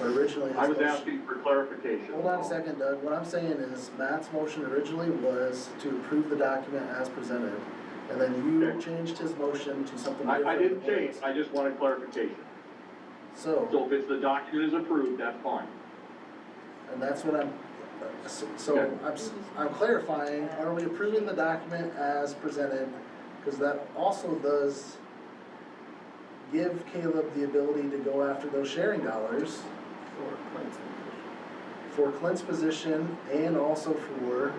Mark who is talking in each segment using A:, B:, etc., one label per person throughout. A: Originally. his
B: I was
A: motion-
B: asking for clarification.
A: Hold on a second, Doug. What I'm saying is Matt's motion originally was to approve the document as presented. And then you
B: Okay.
A: changed his motion to something
B: I,
A: different.
B: I didn't
A: than
B: change,
A: his.
B: I just wanted clarification.
A: So,
B: So if it's the document is approved, that's fine.
A: and that's what I'm, so- so
B: Okay.
A: I'm, s- I'm clarifying, are we approving the document as presented? Because that also does give Caleb the ability to go after those sharing dollars
C: for Clinton.
A: for Clint's position and also for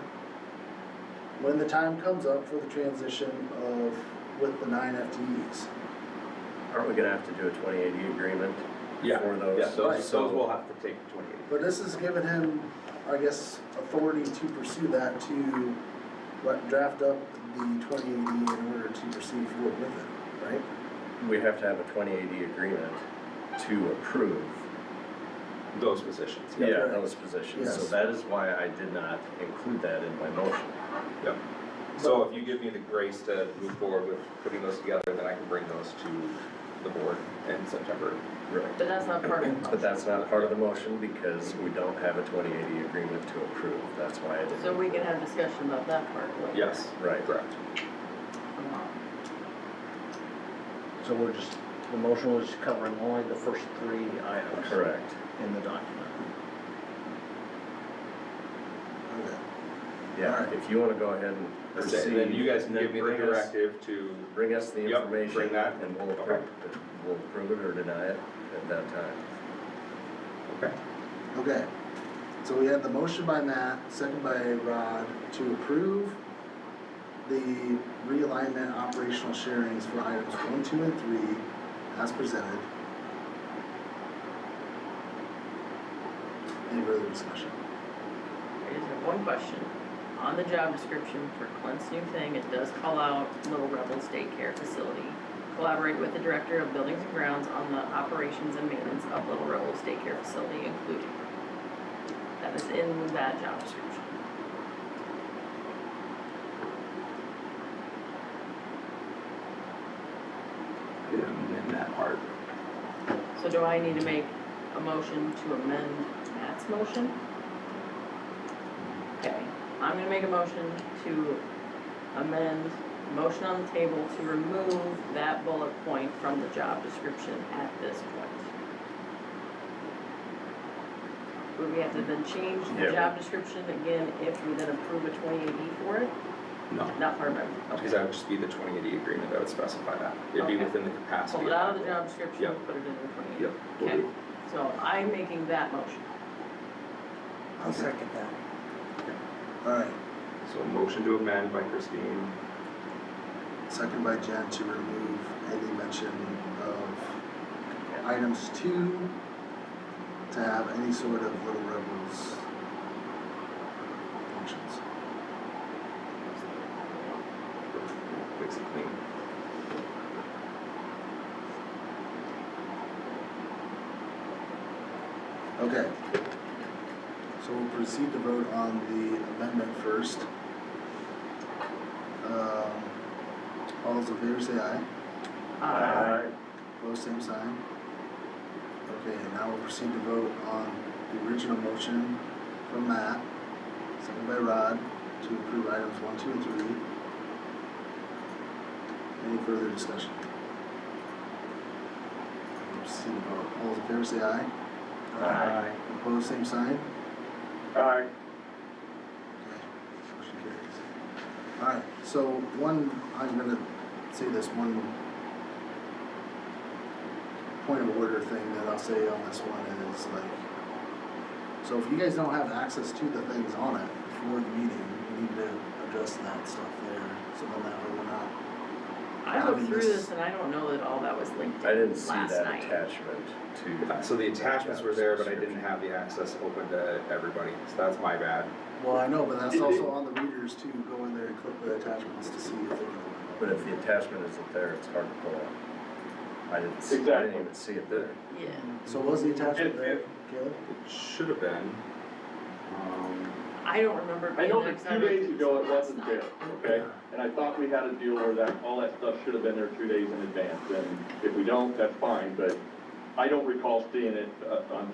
A: when the time comes up for the transition of, with the nine FTEs.
D: Aren't we gonna have to do a twenty eighty agreement
E: Yeah,
D: for those?
E: yeah,
A: Right.
E: those, those will have to take twenty-eight.
A: But this has given him, I guess, authority to pursue that to, what, draft up the twenty eighty in order to proceed forward with it, right?
D: We have to have a twenty eighty agreement to approve.
E: Those positions, yeah.
D: Yeah, those positions, so
A: Yes.
D: that is why I did not include that in my motion.
E: Yep. So if you give me the grace to move forward with putting those together, then I can bring those to the board in September.
D: Right.
C: But that's not part of it.
D: But that's not part of the motion because we don't have a twenty eighty agreement to approve, that's why I didn't.
C: So we can have discussion about that part. later.
E: Yes,
D: Right.
E: correct.
F: So we're just, the motion was covering only the first three items.
D: Correct.
F: In the document.
A: Okay.
D: Yeah,
A: Alright.
D: if you wanna go ahead and proceed.
E: Then you guys can
D: and then
E: give me the
D: bring us-
E: directive to,
D: Bring us the
E: Yep,
D: information.
E: bring that.
D: And we'll
E: Okay.
D: approve, we'll approve it or deny it at that time.
E: okay,
A: Okay, so we had the motion by Matt, second by Rod, to approve the realignment operational sharings for items one, two, and three as presented. Any further discussion?
C: I just have one question. On the job description for Clint's new thing, it does call out Little Rebels Daycare Facility. Collaborate with the Director of Buildings and Grounds on the operations and maintenance of Little Rebels Daycare Facility including. That is in that job description.
E: yeah, in that part.
C: So do I need to make a motion to amend Matt's motion? Okay, I'm gonna make a motion to amend, motion on the table to remove that bullet point from the job description at this point. Would we have to then change the
D: Yeah.
C: job description again if we then approve a twenty eighty for it?
E: No,
C: Not part of it,
E: because that would just be the twenty eighty agreement that would specify that. It'd be
C: Okay.
E: within the capacity.
C: pull it out of the job description,
E: Yeah.
C: put it in the twenty eighty.
E: Yep, will
C: Okay,
E: do.
C: so I'm making that motion.
A: I'll second that. Alright,
E: So motion to amend by Christine,
A: second by Jen to remove any mention of items two to have any sort of Little Rebels functions.
E: fix it clean.
A: Okay. So we'll proceed to vote on the amendment first. Um, All those in favor say aye.
C: Uh,
A: Opposed, same sign. Okay, and now we'll proceed to vote on the original motion from Matt, second by Rod, to approve items one, two, and three. Any further discussion? We'll Proceed to vote. All those in favor say aye.
D: Aye.
A: Opposed, same sign.
B: Aye.
A: Motion carries. Alright, so one, I'm gonna say this one point of order thing that I'll say on this one is like, so if you guys don't have access to the things on it before the meeting, we need to address that stuff there, so then that way we're not.
C: I looked through
A: Anonymous.
C: this and I don't know that all that was linked
D: Um, I didn't
C: in
D: see
C: last
D: that
C: night.
D: attachment to.
E: So the attachments were there, but I didn't have the access open to everybody, so that's my bad.
A: Well, I know, but that's also on the readers too, go in there and click the attachments to see if they can.
D: But if the attachment isn't there, it's hard to pull up. I didn't, see- I didn't
B: Exactly.
D: even see it there.
C: Yeah,
A: So was the
B: It-
A: attachment there,
B: it-
A: Caleb?
E: It should have been. Um,
C: I don't remember. it
B: I
C: being
B: know
C: there
B: that
C: 'cause I
B: two
C: looked
B: days
C: at
B: ago
C: this
B: it wasn't
C: last
B: there,
C: night.
B: okay? And I thought we had a deal where that, all that stuff should have been there two days in advance, and if we don't, that's fine, but I don't recall seeing it, uh, on